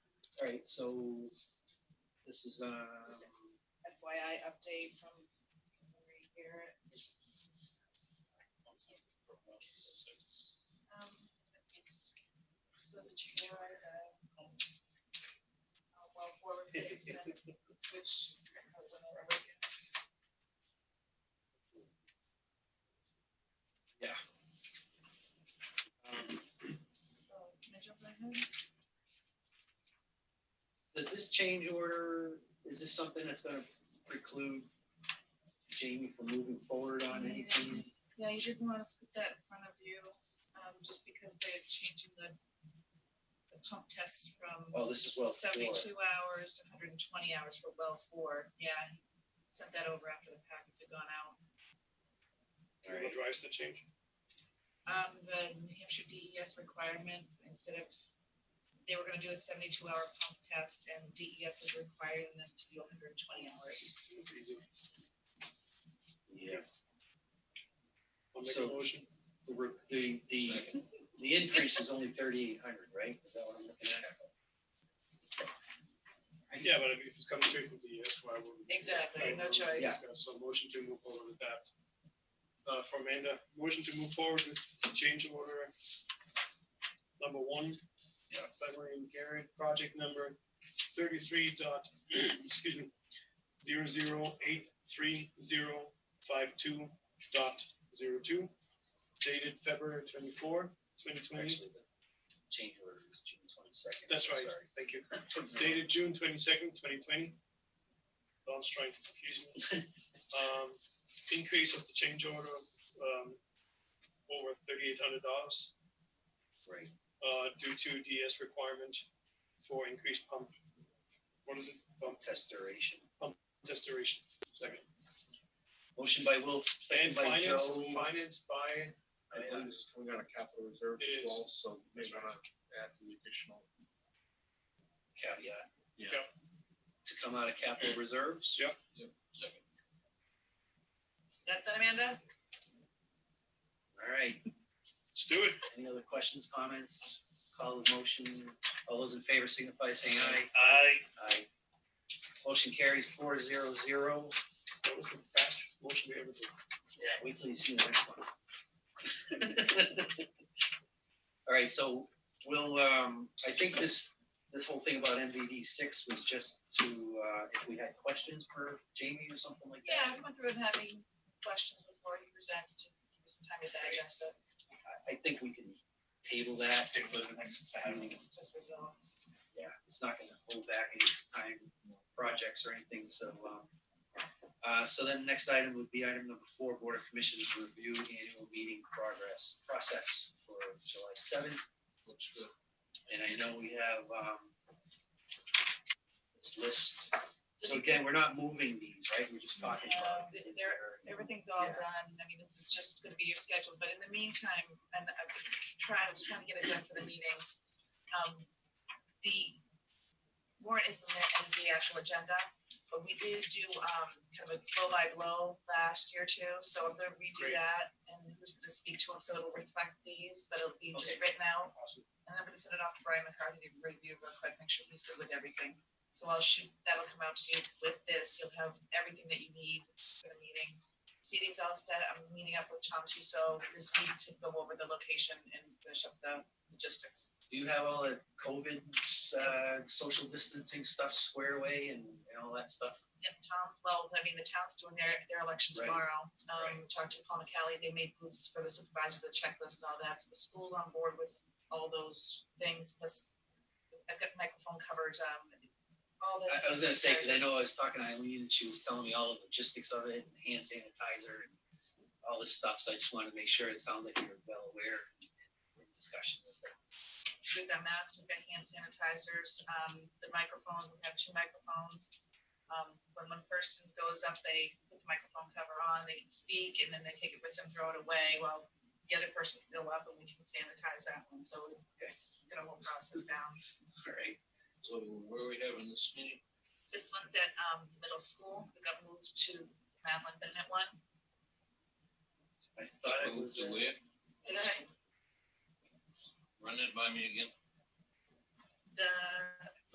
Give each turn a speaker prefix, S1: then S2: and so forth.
S1: Alright, so this is um
S2: FYI update from Marie Garrett. Um, it's so that you know uh, uh, well forward placement, which uh, I went over with
S1: um
S2: you. So, can I jump right in?
S1: does this change order, is this something that's gonna preclude Jamie from moving forward on anything?
S2: Yeah, you didn't wanna put that in front of you, um, just because they're changing the the pump tests from
S1: Oh, this is well four.
S2: seventy-two hours to hundred and twenty hours for well four, yeah. Sent that over after the packets had gone out.
S3: Do you know what drives the change?
S2: um the New Hampshire DES requirement, instead of, they were gonna do a seventy-two hour pump test and DES is requiring them to do hundred and twenty hours.
S3: It's easy.
S1: Yeah,
S3: I'll make
S1: So-
S3: a motion.
S1: the re- the the the increase is only thirty eight hundred, right? Is that what I'm looking at?
S3: Yeah, but I mean, if it's coming straight from DES, why wouldn't?
S2: Exactly,
S3: why
S2: no
S3: wouldn't we
S2: choice.
S3: discuss? So motion to move forward with that. Uh, from Amanda, motion to move forward with the change order. Number one. Yeah. By Maureen Garrett, project number thirty-three dot, excuse me, zero zero eight three zero five two dot zero two. Dated February twenty-four, twenty twenty.
S1: Actually, the change order was June twenty second.
S3: That's right, thank you. Dated June twenty second, twenty twenty. Don's trying to confuse me. Um, increase of the change order, um, over thirty eight hundred dollars,
S1: Right,
S3: uh, due to DS requirement for increased pump. What is it? Pump
S1: test duration.
S3: test duration. Second.
S1: Motion by Will,
S3: And
S1: second by Joe.
S3: finance, financed by,
S4: I believe this is coming out of capital reserves
S3: It
S4: as well, so they're gonna add the additional.
S1: Caveat.
S4: Yeah.
S3: Yep.
S1: To come out of capital reserves.
S3: Yep.
S2: Got that, Amanda?
S1: All right,
S3: let's do it.
S1: any other questions, comments, call the motion, all those in favor signify by saying aye.
S3: Aye.
S1: Aye. Motion carries four zero zero.
S3: That was the fastest motion we ever did.
S1: Yeah, wait till you see the next one. All right, so we'll, um, I think this, this whole thing about MVD six was just to, uh, if we had questions for Jamie or something like that.
S2: Yeah, I went through and had any questions before he presents, to give us some time to digest it,
S1: I, I think we can table that.
S2: it's just results.
S1: Yeah, it's not gonna hold back any time projects or anything, so, um. Uh, so then next item would be item number four, Board of Commissioners review annual meeting progress, process for July seventh.
S4: Looks good.
S1: And I know we have um this list. So again, we're not moving these, right? We're just talking about.
S2: No, they're- Everything's all
S1: Yeah.
S2: done, I mean, this is just gonna be your schedule, but in the meantime, and I've been trying, I was trying to get it done for the meeting. Um, the warrant is the, is the actual agenda, but we did do, um, kind of a blow by blow last year too, so I'm gonna redo
S3: Great.
S2: that. And who's gonna speak to them, so it'll reflect these, but it'll be just written out,
S3: Awesome.
S2: and I'm gonna send it off to Brian McCarthy to review real quick, make sure he's good with everything. So I'll shoot, that'll come out to you with this, you'll have everything that you need for the meeting. Seating's all set, I'm meeting up with Tom Tuso this week to go over the location and finish up the logistics.
S1: Do you have all the COVID uh social distancing stuff squared away and and all that stuff?
S2: Yep, Tom, well, I mean, the town's doing their, their election
S1: Right.
S2: tomorrow, um, talked to Paul McCallie, they made booths for the supervisor, the checklist and all that, so the school's on board with all those things, plus I've got microphone coverage, um, all the.
S1: I I was gonna say, cause I know I was talking to Eileen and she was telling me all the logistics of it, and hand sanitizer and all this stuff, so I just wanted to make sure it sounds like you're well aware in discussion with her.
S2: We've got masks, we've got hand sanitizers, um, the microphone, we have two microphones. Um, when one person goes up, they put the microphone cover on, they can speak, and then they take it with them, throw it away, while the other person can go up and we can sanitize that one, so it's gonna whole process down.
S1: All right,
S4: So where are we having this meeting?
S2: This one's at, um, middle school, we got moved to Madeline Bennett one.
S1: I thought it was. uh,
S2: Did I?
S5: Run that by me again.
S2: The